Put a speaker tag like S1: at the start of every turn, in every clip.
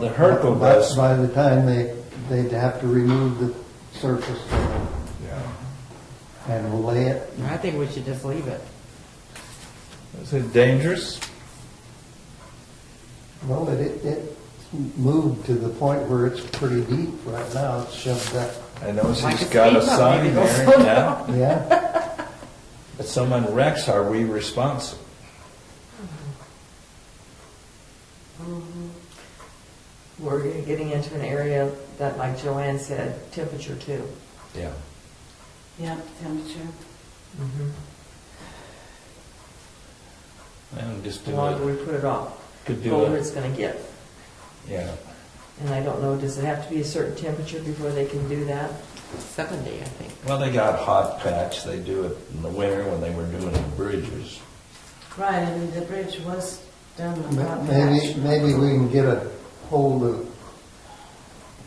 S1: The Herco
S2: By-
S1: does.
S2: By the time they, they'd have to remove the surface
S1: Yeah.
S2: and lay it.
S3: I think we should just leave it.
S1: Is it dangerous?
S2: Well, it, it, it moved to the point where it's pretty deep right now. It's shoved up,
S1: I know
S3: Like
S1: she's
S3: a
S1: got a
S3: speed bump,
S1: sign
S3: maybe go
S1: there.
S3: slow
S1: yeah.
S2: yeah.
S1: If someone wrecks, are we responsible?
S3: We're getting into an area that, like Joanne said, temperature too.
S1: Yeah.
S4: Yeah, temperature.
S1: And just
S3: The
S1: do
S3: longer
S1: it.
S3: we put it off,
S1: Could
S3: the
S1: do
S3: colder
S1: it.
S3: it's gonna get.
S1: Yeah.
S3: And I don't know, does it have to be a certain temperature before they can do that? Seventy, I think.
S1: Well, they got hot patch. They do it in the winter when they were doing the bridges.
S4: Right, I mean, the bridge was done without
S2: M-
S4: patch.
S2: Maybe, maybe we can get a hold of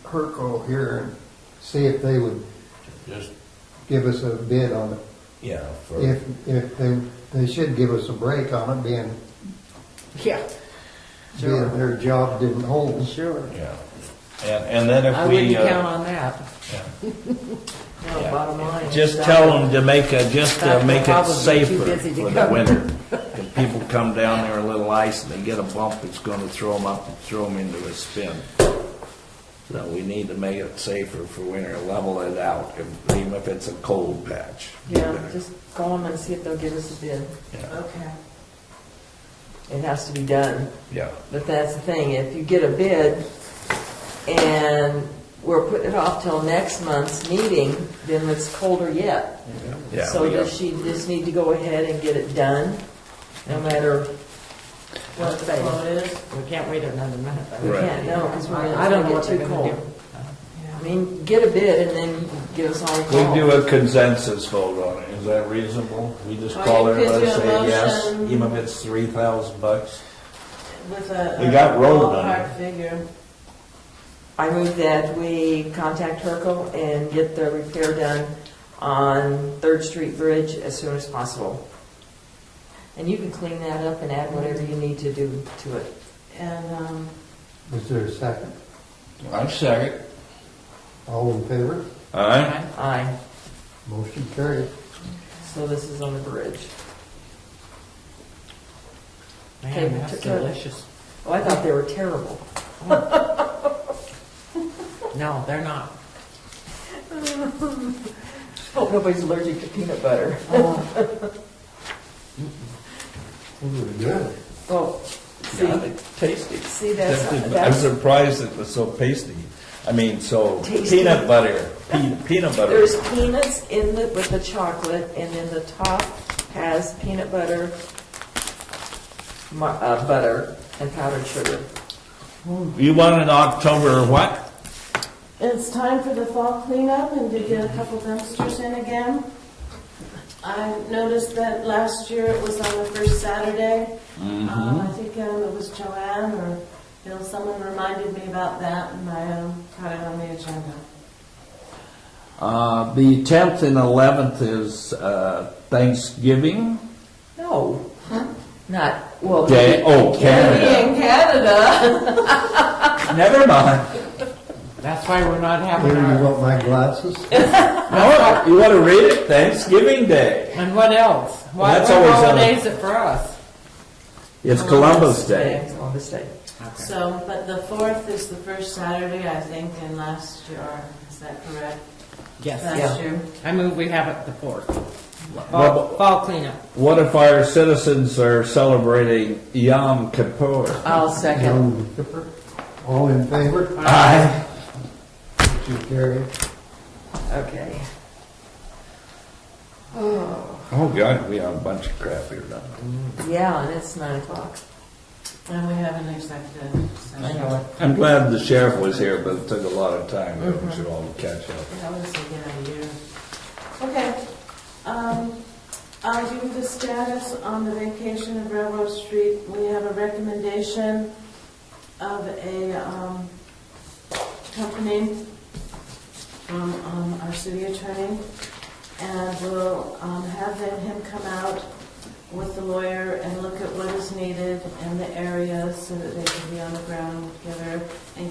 S2: Herco here and see if they would
S1: Just
S2: give us a bid on it.
S1: yeah. For,
S2: If, if they, they should give us a break on it being,
S3: Yeah.
S2: being their job didn't hold.
S3: Sure.
S1: yeah. And and then if
S3: I
S1: we
S3: wouldn't
S1: uh,
S3: count on that.
S1: yeah.
S3: No,
S1: Yeah.
S3: bottom line.
S5: Just tell them to make a, just
S3: Stop.
S5: to make
S3: They'll
S5: it
S3: probably be too
S5: safer
S3: busy to
S5: for the
S3: come.
S5: winter. If people come down there a little ice and they get a bump, it's gonna throw them up and throw them into a spin. So we need to make it safer for winter, level it out, if- even if it's a cold patch.
S3: Yeah, just call them and see if they'll give us a bid.
S5: Yeah,
S4: Okay.
S3: It has to be done.
S5: Yeah,
S3: But that's the thing, if you get a bid and we're putting it off till next month's meeting, then it's colder yet.
S5: yeah.
S3: So
S5: we
S3: does she just need to go ahead and get it done, no matter
S4: What
S3: what
S4: the
S3: they...
S4: flow is?
S3: We can't wait another month. We
S5: Right.
S3: can't, no, because we're
S4: I don't know
S3: going
S4: what
S3: to
S4: they're
S3: get too
S4: gonna
S3: cold. I mean, get a bid and then you can give us all a
S5: We
S3: call.
S5: do a consensus vote on it, is that reasonable? We just
S4: Well,
S5: call
S4: you could
S5: everybody,
S4: do a
S5: say yes,
S4: motion.
S5: even if it's three thousand bucks?
S4: With a.
S5: We got
S4: a
S5: road on it.
S4: ballpark figure.
S3: I move that we contact Herco and get the repair done on Third Street Bridge as soon as possible. And you can clean that up and add whatever you need to do to it.
S4: And, um,
S2: Is there a second?
S5: I'm sorry.
S2: All in favor?
S5: All right,
S3: Aye,
S2: Motion carried.
S3: so this is on the bridge. Okay,
S6: Man, that's
S3: took care of it.
S6: delicious.
S3: Oh, I thought they were terrible.
S6: No, they're not.
S3: Hope Oh, nobody's allergic to peanut butter.
S2: good.
S3: Well, Oh, see,
S1: Yeah, they tasty.
S3: see, that's,
S1: I'm
S3: that's,
S1: surprised it was so pasty. I mean, so
S3: Tasty.
S1: peanut butter, pe- peanut butter.
S3: there's peanuts in the, with the chocolate, and then the top has peanut butter, mu- uh, butter, and powdered sugar.
S5: you want an October what?
S4: it's time for the fall cleanup and to get a couple dumpsters in again. I noticed that last year it was on the first Saturday.
S5: Mm-hmm.
S4: Um, I think um, it was Joanne or Bill, someone reminded me about that and I um, caught it on the agenda.
S5: Uh, the tenth and eleventh is uh, Thanksgiving
S3: No, not, well.
S5: Day. Oh, Canada.
S4: In Canada.
S5: Never mind.
S6: That's why we're not having
S2: Here, you
S6: our,
S2: want my glasses?
S5: No, you want to read it? Thanksgiving Day.
S6: and what else? Why,
S5: That's
S6: what
S5: always on the-
S6: holiday is it for us?
S5: It's Columbus Day.
S3: Oh, Columbus Day.
S4: So, but the fourth is the first Saturday, I think, and last year, or is that correct?
S6: Yes,
S3: Yeah.
S4: Last year.
S6: I move we have it the fourth.
S5: Well,
S6: Fall, fall cleanup.
S5: What if our citizens are celebrating Yom Kippur?
S3: I'll second.
S2: All in favor?
S3: Ah.
S5: Aye.
S2: Motion carried.
S3: Okay.
S5: Oh God, we have a bunch of crap here now.
S3: Yeah, and it's nine o'clock.
S4: And we have an executive session.
S3: I know it.
S5: I'm glad the sheriff was here, but it took a lot of time. We should all catch up.
S4: That was the end of the year. Okay, um, I do the status on the vacation of Railroad Street. We have a recommendation of a, um, company from, um, our city attorney. And we'll, um, have them, him come out with the lawyer and look at what is needed in the area so that they can be on the ground together and